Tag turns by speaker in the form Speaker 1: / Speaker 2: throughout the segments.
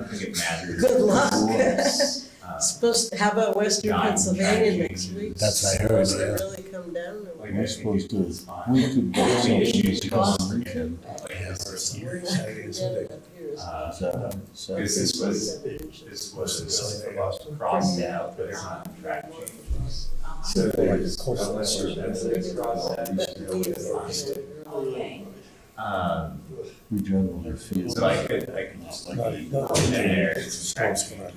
Speaker 1: think it matters.
Speaker 2: Good luck.
Speaker 1: Uh,
Speaker 2: Supposed to, how about Western
Speaker 1: John, John,
Speaker 2: Pennsylvania next
Speaker 1: James.
Speaker 2: week?
Speaker 3: That's what I heard,
Speaker 2: Supposed to
Speaker 3: yeah.
Speaker 2: really come down.
Speaker 1: like,
Speaker 2: or-
Speaker 1: I think
Speaker 4: supposed to-
Speaker 1: it's fine.
Speaker 4: We could
Speaker 1: The
Speaker 4: do
Speaker 1: only issues you don't
Speaker 4: something.
Speaker 1: forget, like, the first
Speaker 2: We're
Speaker 1: year.
Speaker 2: not coming down up here.
Speaker 1: Uh,
Speaker 4: So, so-
Speaker 1: Because this was,
Speaker 2: Seven.
Speaker 1: this was crossed out, but it's not track change. So there's, unless you're, that's crossed out, you
Speaker 2: But
Speaker 1: should know
Speaker 2: we
Speaker 1: what
Speaker 2: were
Speaker 1: it's on.
Speaker 2: there early.
Speaker 1: Um,
Speaker 4: we generally are field.
Speaker 1: so I could, I could just like, be there, it's track change.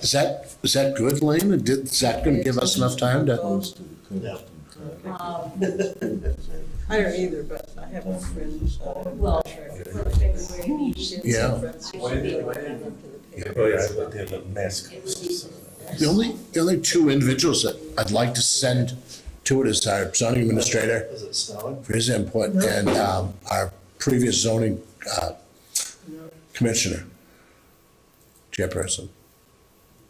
Speaker 3: Is that, is that good, Lane? Did, is that gonna give us enough time to?
Speaker 4: Close to the coast and traffic.
Speaker 5: Um,
Speaker 2: I don't either, but I have a friend. uh,
Speaker 5: Well, for February,
Speaker 2: she has some
Speaker 3: Yeah.
Speaker 2: friends who
Speaker 1: When
Speaker 2: should
Speaker 1: did-
Speaker 2: really
Speaker 1: when
Speaker 2: come
Speaker 1: did-
Speaker 2: up to the picture.
Speaker 6: Oh, yeah, I looked at the mask.
Speaker 3: The only, the only two individuals that I'd like to send to it is our zoning administrator
Speaker 6: Is it snowing?
Speaker 3: for his input and, um, our previous zoning, uh, commissioner, chairperson.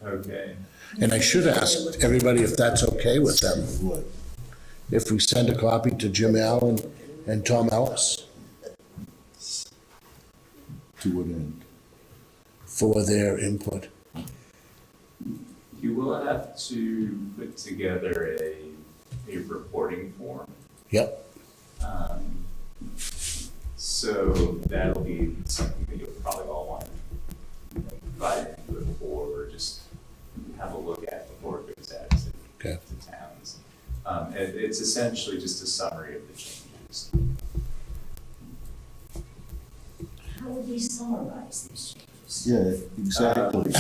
Speaker 1: Okay.
Speaker 3: And I should ask everybody if that's okay with them, if we send a copy to Jim Allen and Tom Ellis
Speaker 4: To what end?
Speaker 3: for their input.
Speaker 1: You will have to put together a, a reporting form.
Speaker 3: Yep,
Speaker 1: Um, So that'll be something that you'll probably all want to invite into it or just have a look at before it goes out to,
Speaker 3: Okay.
Speaker 1: to towns. Um, it, it's essentially just a summary of the changes.
Speaker 5: how would we summarize these changes?
Speaker 4: Yeah, exactly.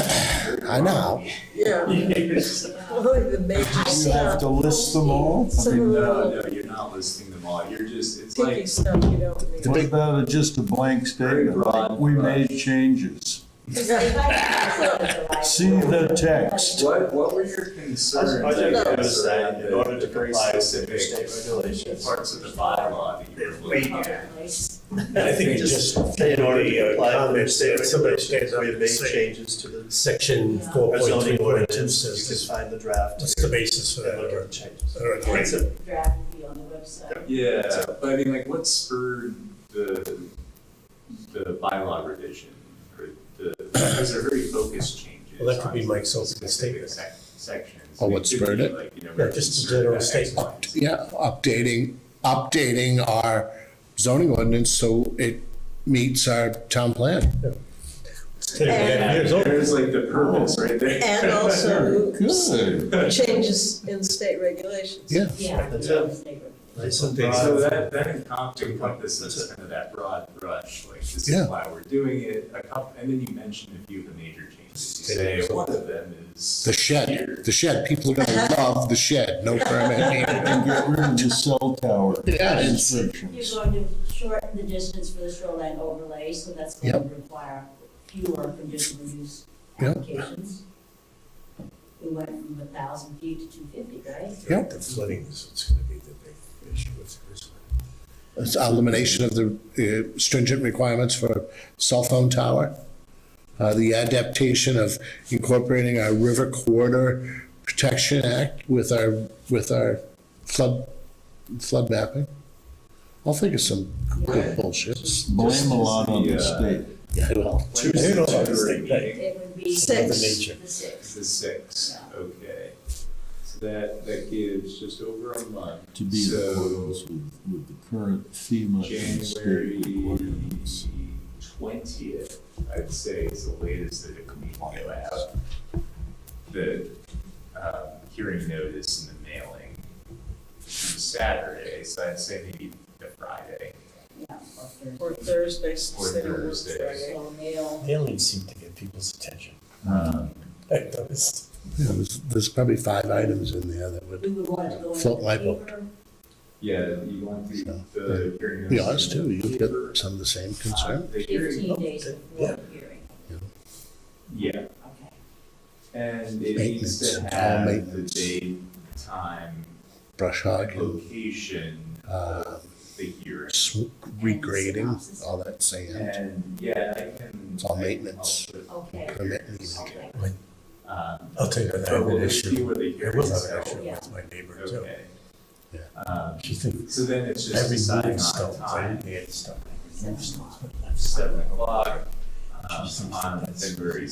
Speaker 3: I know.
Speaker 2: Yeah, only the major
Speaker 4: You have
Speaker 2: stuff.
Speaker 4: to list them all? I
Speaker 2: Some
Speaker 4: mean,
Speaker 1: No, no, you're not listing them all, you're just, it's
Speaker 2: Picky
Speaker 1: like,
Speaker 2: stuff you don't need.
Speaker 4: What about a- just a blank statement? like, We made changes.
Speaker 5: If I could close the library-
Speaker 4: See the text.
Speaker 1: what, what were your concerns?
Speaker 6: I think
Speaker 1: guess,
Speaker 6: it was that
Speaker 1: around
Speaker 6: in
Speaker 1: the-
Speaker 6: order to
Speaker 1: the very
Speaker 6: comply with
Speaker 1: specific
Speaker 6: the state regulations.
Speaker 1: Parts of the bylaw that you were looking at.
Speaker 6: I think just in order to comply with state regulations, we have made changes to the
Speaker 7: Section
Speaker 5: Yeah.
Speaker 7: four
Speaker 6: our
Speaker 7: point three
Speaker 6: zoning
Speaker 7: point two
Speaker 6: ordinance. You
Speaker 7: says
Speaker 6: can find the draft.
Speaker 7: that's the basis for
Speaker 6: And look
Speaker 7: that.
Speaker 6: at the changes.
Speaker 5: That's a draft will be on the website.
Speaker 1: Yeah, but I mean, like, what spurred the, the bylaw revision? Or the, because they're very focused changes.
Speaker 7: Well, that could be
Speaker 1: on
Speaker 7: Mike's opening
Speaker 1: specific
Speaker 7: statement.
Speaker 1: sec- Sections.
Speaker 3: Or Oh, what
Speaker 1: could be,
Speaker 3: spurred it?
Speaker 1: like, you know,
Speaker 7: Yeah, just a
Speaker 1: concern
Speaker 7: general
Speaker 1: about X,
Speaker 7: statement.
Speaker 1: Y, and Z.
Speaker 3: Yeah, updating, updating our zoning ordinance so it meets our town plan.
Speaker 2: And-
Speaker 7: Years old.
Speaker 1: There's like the purpose right there.
Speaker 2: And also
Speaker 4: Good.
Speaker 2: changes in state regulations.
Speaker 3: Yeah,
Speaker 5: Yeah.
Speaker 6: That's
Speaker 7: Nice and
Speaker 1: So
Speaker 7: broad.
Speaker 1: that, that encom- encompasses kind of that broad brush, like this
Speaker 3: Yeah.
Speaker 1: is why we're doing it, a couple, and then you mentioned a few of the major changes. You say, one of them is.
Speaker 3: the shed,
Speaker 1: here.
Speaker 3: the shed, people are gonna love the shed, no permit needed.
Speaker 4: And get rid of the cell tower
Speaker 3: Yeah, it's-
Speaker 4: restrictions.
Speaker 5: You're going to shorten the distance for the shoreline overlay, so that's going to require fewer conditional use
Speaker 3: Yep.
Speaker 5: applications. We went from a thousand feet to two fifty, right?
Speaker 3: Yep.
Speaker 7: The flooding is what's gonna be the big issue with this one.
Speaker 3: It's elimination of the uh, stringent requirements for cell phone tower. Uh, the adaptation of incorporating our River Corridor Protection Act with our, with our flood, flood mapping. I'll think of some good bullshit.
Speaker 4: Blame a lot on the state.
Speaker 3: Yeah, I will.
Speaker 7: Tuesday, no,
Speaker 1: February
Speaker 7: Tuesday,
Speaker 1: meeting.
Speaker 5: It would be.
Speaker 2: Six.
Speaker 7: Nature.
Speaker 5: The six.
Speaker 1: The six,
Speaker 5: Yeah.
Speaker 1: okay. So that, that gives just over a month.
Speaker 4: to be in accordance
Speaker 1: So
Speaker 4: with, with the current FEMA and
Speaker 1: January
Speaker 4: state requirements.
Speaker 1: twentieth, I'd say is the latest that it can be mailed out. The, um, hearing notice and the mailing is Saturday, so I'd say maybe the Friday.
Speaker 5: Yeah.
Speaker 2: Or Thursday,
Speaker 1: Or
Speaker 2: Saturday, or
Speaker 1: Thursday.
Speaker 2: Friday.
Speaker 5: So mail.
Speaker 7: They only seem to get people's attention.
Speaker 1: Um,
Speaker 7: I noticed.
Speaker 3: Yeah, there's, there's probably five items in there that would,
Speaker 5: We would want to go in
Speaker 3: Float
Speaker 5: the
Speaker 3: light bulb.
Speaker 5: paper.
Speaker 1: Yeah, you want the, the hearing notice.
Speaker 3: be honest
Speaker 1: in
Speaker 3: too,
Speaker 1: the
Speaker 3: you've
Speaker 1: paper.
Speaker 3: got some of the same
Speaker 1: Uh,
Speaker 3: concern.
Speaker 1: The hearing,
Speaker 5: Fifteen days before the hearing,
Speaker 1: yeah,
Speaker 5: okay.
Speaker 1: And it needs to
Speaker 3: Maintenance, all
Speaker 1: have the
Speaker 3: maintenance.
Speaker 1: date, time,
Speaker 3: Brush hogging,
Speaker 1: location
Speaker 3: uh,
Speaker 1: of the hearing.
Speaker 3: sw- regrading, all that sand,
Speaker 1: And yeah, I can.
Speaker 3: It's all
Speaker 1: I can
Speaker 3: maintenance.
Speaker 1: help with,
Speaker 5: Okay,
Speaker 3: permit needed.
Speaker 5: okay.
Speaker 1: um,
Speaker 7: I'll tell you, that I
Speaker 1: But
Speaker 7: have
Speaker 1: we'll
Speaker 7: an
Speaker 1: just see
Speaker 7: issue.
Speaker 1: where the
Speaker 7: I
Speaker 1: hearing
Speaker 7: will
Speaker 1: is
Speaker 7: have an
Speaker 1: held.
Speaker 7: issue with my neighbor too.
Speaker 1: Okay.
Speaker 3: Yeah.
Speaker 1: Um,
Speaker 7: She thinks
Speaker 1: so then it's just
Speaker 7: every
Speaker 1: deciding
Speaker 7: moving
Speaker 1: on
Speaker 7: stone,
Speaker 1: time,
Speaker 7: every hand stone.
Speaker 1: seven o'clock. um, um, on February